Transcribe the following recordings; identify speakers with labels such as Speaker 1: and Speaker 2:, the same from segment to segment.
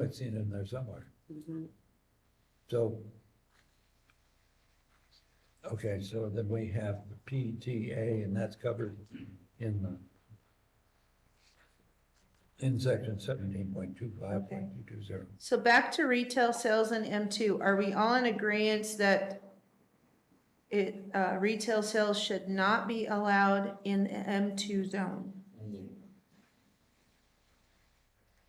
Speaker 1: I've seen it in there somewhere. So, okay, so then we have the PTA, and that's covered in the, in section seventeen point two five point two two zero.
Speaker 2: So back to retail sales in M two, are we all in agreement that it, uh, retail sales should not be allowed in the M two zone?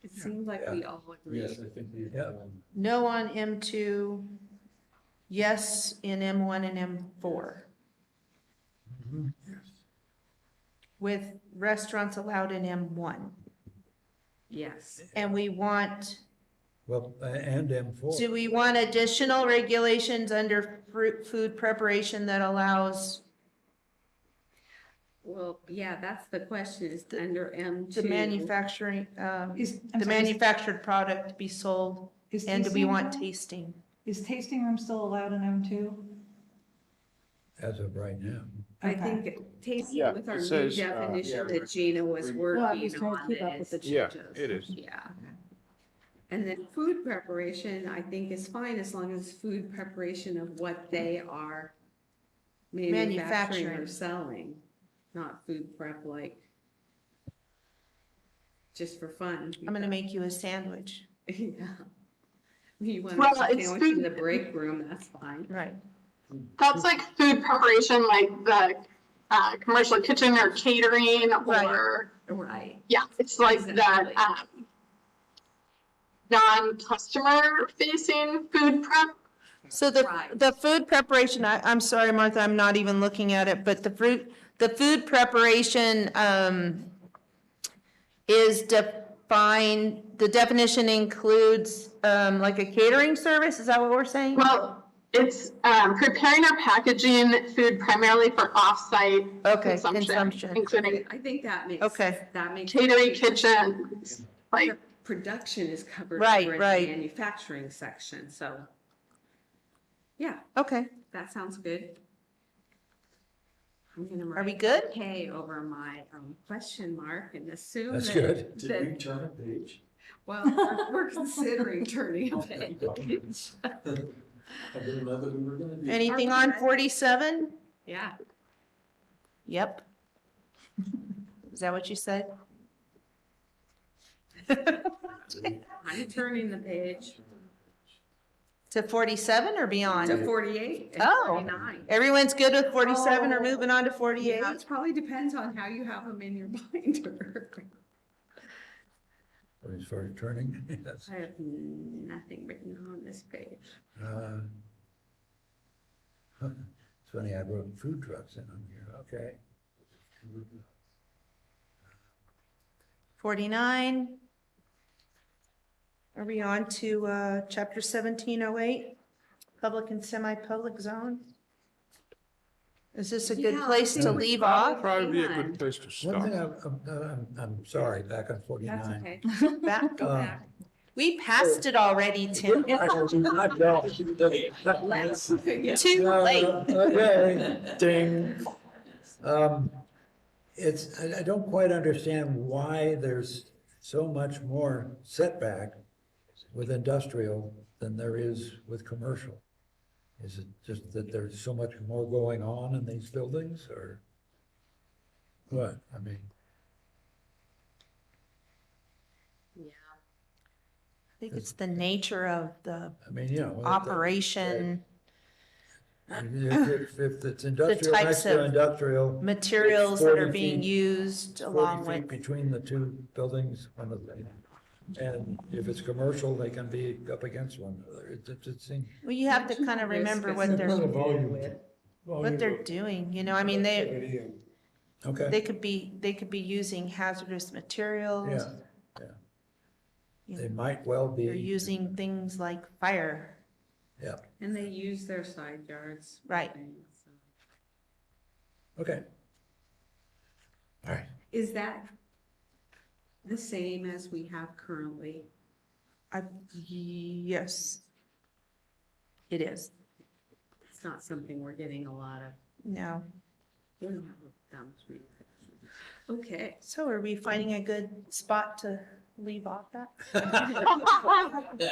Speaker 3: It seemed like we all agreed.
Speaker 4: Yes, I think we,
Speaker 1: Yeah.
Speaker 4: um,
Speaker 2: No on M two, yes in M one and M four. With restaurants allowed in M one,
Speaker 3: Yes.
Speaker 2: and we want
Speaker 1: Well, a- and M four.
Speaker 2: Do we want additional regulations under fruit, food preparation that allows
Speaker 3: Well, yeah, that's the question is under M two.
Speaker 2: the manufacturing, um,
Speaker 5: Is, I'm
Speaker 2: the
Speaker 5: sorry, is-
Speaker 2: manufactured product be sold?
Speaker 5: is
Speaker 2: And do we
Speaker 5: tasting
Speaker 2: want
Speaker 5: room-
Speaker 2: tasting?
Speaker 5: Is tasting room still allowed in M two?
Speaker 1: As of right now.
Speaker 3: I think tasting
Speaker 6: Yeah,
Speaker 3: with
Speaker 6: it
Speaker 3: our new
Speaker 6: says, uh,
Speaker 3: definition
Speaker 4: yeah,
Speaker 3: that Gina was
Speaker 4: we-
Speaker 5: Well, I'm
Speaker 3: working
Speaker 5: just trying to
Speaker 3: on
Speaker 5: keep up with
Speaker 3: is.
Speaker 5: the
Speaker 6: Yeah, it is.
Speaker 3: Yeah. And then food preparation, I think is fine as long as food preparation of what they are manufacturing or
Speaker 2: Manufacturing.
Speaker 3: selling, not food prep like just for fun.
Speaker 2: I'm gonna make you a sandwich.
Speaker 3: Yeah. You want
Speaker 7: Well,
Speaker 3: to
Speaker 7: it's
Speaker 3: sandwich in
Speaker 7: food-
Speaker 3: the break room, that's fine.
Speaker 2: Right.
Speaker 7: That's like food preparation, like the uh, commercial kitchen or catering, or
Speaker 3: Right.
Speaker 7: yeah, it's like
Speaker 3: Exactly.
Speaker 7: that um, non-customer facing food prep.
Speaker 2: So the,
Speaker 3: Right.
Speaker 2: the food preparation, I, I'm sorry, Martha, I'm not even looking at it, but the fruit, the food preparation, um, is defined, the definition includes, um, like a catering service, is that what we're saying?
Speaker 7: Well, it's um, preparing or packaging food primarily for off-site
Speaker 2: Okay,
Speaker 7: consumption,
Speaker 2: consumption.
Speaker 7: including
Speaker 3: I think that makes.
Speaker 2: Okay.
Speaker 3: That makes.
Speaker 7: catering kitchens, like
Speaker 3: Production is covered.
Speaker 2: Right,
Speaker 3: under the
Speaker 2: right.
Speaker 3: Manufacturing section, so. Yeah,
Speaker 2: Okay,
Speaker 3: that sounds good. I'm gonna
Speaker 2: are we
Speaker 3: write
Speaker 2: good?
Speaker 3: K over my um, question mark and assume.
Speaker 1: That's
Speaker 3: that-
Speaker 1: good.
Speaker 4: did we turn a page?
Speaker 3: Well, we're- we're considering turning a page.
Speaker 4: I didn't know that we were gonna do. that.
Speaker 2: Anything on forty-seven?
Speaker 3: Yeah,
Speaker 2: Yep. Is that what you said?
Speaker 3: I'm turning the page
Speaker 2: To forty-seven or
Speaker 3: to
Speaker 2: beyond?
Speaker 3: forty-eight and
Speaker 2: Oh.
Speaker 3: forty-nine.
Speaker 2: Everyone's good with forty-seven or
Speaker 3: Oh.
Speaker 2: moving on to
Speaker 3: Yeah,
Speaker 2: forty-eight?
Speaker 3: it probably depends on how you have them in your binder.
Speaker 1: When he started turning, yes.
Speaker 3: I have nothing written on this page.
Speaker 1: Uh, It's funny, I wrote food trucks in on here, okay.
Speaker 2: Forty-nine? Are we on to, uh, chapter seventeen oh eight? Public and semi-public zone? Is this a good
Speaker 3: Yeah, I
Speaker 2: place to
Speaker 1: think we
Speaker 2: leave
Speaker 3: probably-
Speaker 2: off?
Speaker 6: Probably be a
Speaker 3: Hang on.
Speaker 6: good place to
Speaker 1: One
Speaker 6: stop.
Speaker 1: thing, I'm, I'm- I'm, I'm sorry, back on
Speaker 3: That's
Speaker 1: forty-nine.
Speaker 3: okay.
Speaker 2: Back-
Speaker 3: Go
Speaker 1: Uh,
Speaker 3: back.
Speaker 2: We passed it already, Tim.
Speaker 3: Let's.
Speaker 2: Too late.
Speaker 1: Okay, ding. Um, It's, I, I don't quite understand why there's so much more setback with industrial than there is with commercial. Is it just that there's so much more going on in these buildings or? What, I mean,
Speaker 3: Yeah.
Speaker 2: I think it's the nature of the
Speaker 1: I mean, you know. it-
Speaker 2: operation,
Speaker 1: If, if- if it's industrial,
Speaker 2: types
Speaker 1: next to
Speaker 2: of
Speaker 1: industrial.
Speaker 2: materials that are
Speaker 1: 40
Speaker 2: being
Speaker 1: feet-
Speaker 2: used along
Speaker 1: 40 feet
Speaker 2: with
Speaker 1: between the two buildings, one of them. And if it's commercial, they can be up against one another. It's, it's, it's. in-
Speaker 2: Well, you have to kind of
Speaker 3: risk
Speaker 2: remember
Speaker 3: is
Speaker 2: what they're,
Speaker 4: volume.
Speaker 2: what they're doing, you know, I mean, they,
Speaker 1: Okay,
Speaker 2: they could be, they could be using hazardous materials.
Speaker 1: yeah,
Speaker 2: you
Speaker 1: they
Speaker 2: know,
Speaker 1: might well
Speaker 2: They're
Speaker 1: be,
Speaker 2: using things like fire,
Speaker 1: yeah,
Speaker 3: And they use their side yards. for
Speaker 2: Right.
Speaker 3: things, so.
Speaker 1: okay. All right,
Speaker 3: Is that the same as we have currently?
Speaker 2: I, yes. It is,
Speaker 3: It's not something we're getting a lot of.
Speaker 2: no,
Speaker 3: we don't have a thumbs read. Okay,
Speaker 2: so are we finding a good spot to leave off that?